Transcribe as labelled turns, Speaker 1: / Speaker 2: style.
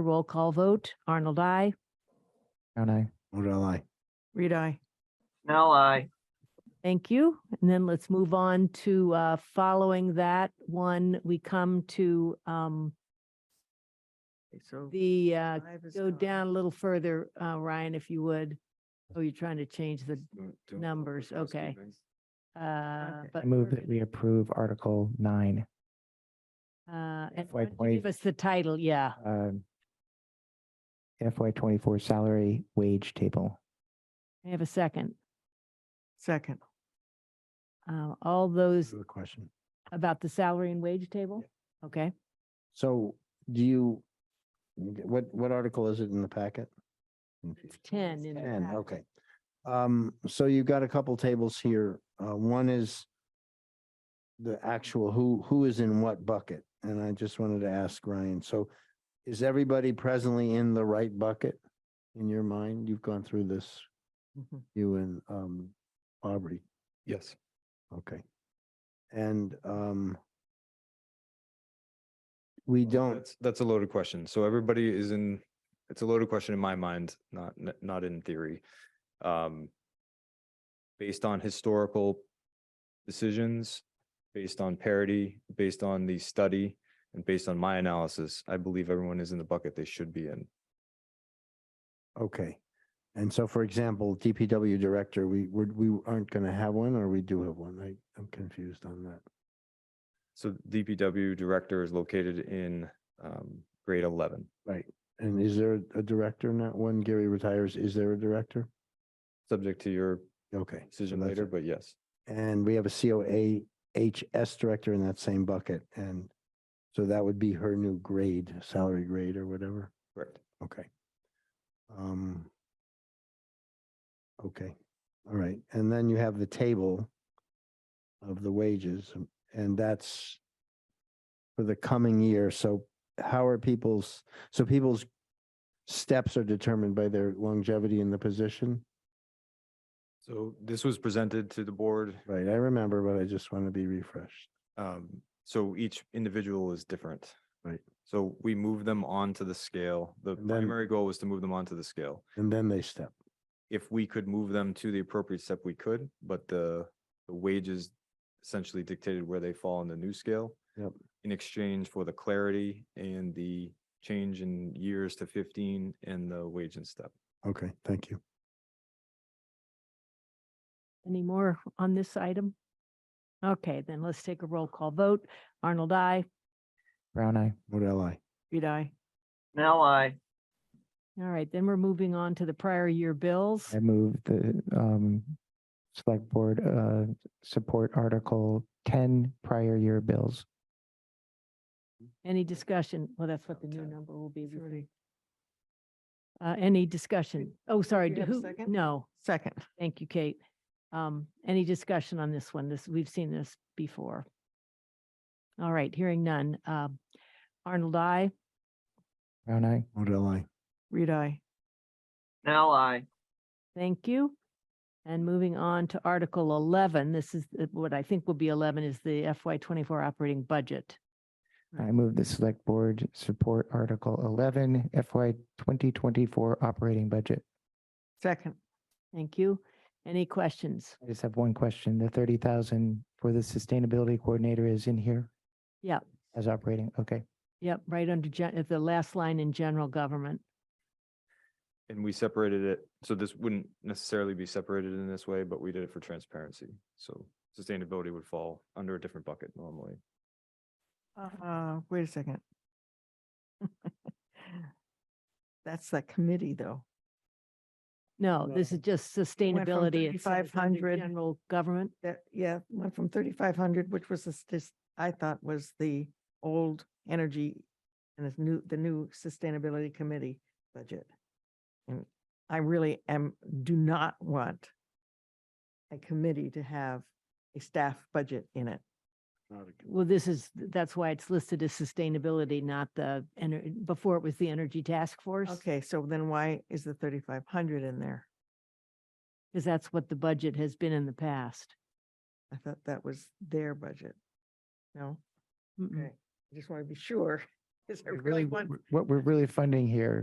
Speaker 1: Roll call vote. Arnold, I.
Speaker 2: Brown eye.
Speaker 3: Model I.
Speaker 4: Reed, I.
Speaker 5: Snell, I.
Speaker 1: Thank you. And then let's move on to, uh, following that one, we come to, um,
Speaker 5: So
Speaker 1: the, uh,
Speaker 4: Five is
Speaker 1: go
Speaker 4: gone.
Speaker 1: down a little further, uh, Ryan, if you would. Oh, you're trying to change the, numbers, okay. uh,
Speaker 4: Okay.
Speaker 1: but.
Speaker 2: I move
Speaker 1: we're
Speaker 2: that we approve Article nine.
Speaker 1: gonna, Uh, and
Speaker 2: FY
Speaker 1: why don't you give
Speaker 2: 20.
Speaker 1: us the title, yeah.
Speaker 2: um, FY twenty-four salary wage table.
Speaker 1: I have a second.
Speaker 4: Second.
Speaker 1: Uh, all those
Speaker 3: The question.
Speaker 1: about the salary and wage table? Okay,
Speaker 3: So do you, what, what article is it in the packet? Hmm.
Speaker 1: it's ten in the
Speaker 3: Ten,
Speaker 1: packet.
Speaker 3: okay. Um, so you've got a couple tables here. Uh, one is the actual who, who is in what bucket? And I just wanted to ask Ryan, so is everybody presently in the right bucket? In your mind, you've gone through this,
Speaker 4: Mhm.
Speaker 3: you and, um, Aubrey,
Speaker 6: Yes.
Speaker 3: okay. And, um, we
Speaker 6: Well,
Speaker 3: don't,
Speaker 6: that's- That's a loaded question. So everybody is in, it's a loaded question in my mind, not, n- not in theory. Um, Based on historical decisions, based on parity, based on the study, and based on my analysis, I believe everyone is in the bucket they should be in.
Speaker 3: Okay. And so, for example, DPW director, we, we, we aren't going to have one or we do have one? I, I'm confused on that.
Speaker 6: So DPW director is located in um, grade 11.
Speaker 3: And is there a director in that one? Gary retires. Is there a director?
Speaker 6: Subject to your
Speaker 3: Okay. so
Speaker 6: decision
Speaker 3: that's
Speaker 6: later,
Speaker 3: it.
Speaker 6: but yes.
Speaker 3: And we have a COA HS director in that same bucket. And so that would be her new grade, salary grade or whatever.
Speaker 6: Correct.
Speaker 3: Okay. Um. Okay, all right. And then you have the table of the wages and- and that's for the coming year. So how are people's, so people's steps are determined by their longevity in the position?
Speaker 6: So this was presented to the board
Speaker 3: Right, I remember, but I just want to be refreshed.
Speaker 6: Um, so each individual is different.
Speaker 3: Right.
Speaker 6: So we move them onto the scale. The
Speaker 3: And then-
Speaker 6: primary goal was to move them onto the scale.
Speaker 3: And then they step.
Speaker 6: If we could move them to the appropriate step, we could, but the, the wages essentially dictated where they fall on the new scale.
Speaker 3: Yep.
Speaker 6: In exchange for the clarity and the change in years to fifteen and the wage and step.
Speaker 3: Okay, thank you.
Speaker 1: Any more on this item? Okay, then let's take a roll call vote. Arnold, I.
Speaker 2: Brown eye.
Speaker 3: Model I.
Speaker 4: Reed, I.
Speaker 5: Snell, I.
Speaker 1: All right, then we're moving on to the prior year bills.
Speaker 2: I move the um select board uh support Article ten prior year bills.
Speaker 1: Any discussion? Well, that's what the new
Speaker 4: 10.
Speaker 1: number will be.
Speaker 4: It's already-
Speaker 1: Uh, any discussion? Oh, sorry.
Speaker 4: we
Speaker 1: d-
Speaker 4: have a
Speaker 1: who-
Speaker 4: second?
Speaker 1: No,
Speaker 4: Second.
Speaker 1: thank you, Kate. Um, any discussion on this one? This, we've seen this before. All right, hearing none. Um, Arnold, I.
Speaker 2: Brown eye.
Speaker 3: Model I.
Speaker 4: Reed, I.
Speaker 5: Snell, I.
Speaker 1: Thank you. And moving on to Article eleven, this is uh, what I think will be eleven is the FY twenty-four operating budget.
Speaker 2: I move the select board support Article eleven FY twenty twenty-four operating budget.
Speaker 4: Second.
Speaker 1: Thank you. Any questions?
Speaker 2: I just have one question. The thirty thousand for the sustainability coordinator is in here?
Speaker 1: Yep.
Speaker 2: As operating, okay.
Speaker 1: Yep, right under gen- at the last line in general government.
Speaker 6: And we separated it, so this wouldn't necessarily be separated in this way, but we did it for transparency. So sustainability would fall under a different bucket normally.
Speaker 4: Uh, wait a second. That's the committee, though.
Speaker 1: No, this
Speaker 3: No.
Speaker 1: is just sustainability. It says under
Speaker 4: 3,500
Speaker 1: General government.
Speaker 4: That, yeah, went from thirty-five hundred, which was this, this, I thought was the old energy and this new, the new sustainability committee budget. And I really am, do not want a committee to have a staff budget in it.
Speaker 1: Well, this is, that's why it's listed as sustainability, not the, ener- before it was the energy task force.
Speaker 4: Okay, so then why is the thirty-five hundred in there?
Speaker 1: Because that's what the budget has been in the past.
Speaker 4: I thought that was their budget. No?
Speaker 1: Mm-mm.
Speaker 4: I just want to be sure. Because I
Speaker 2: We're Really,
Speaker 4: really want
Speaker 2: what we're really funding here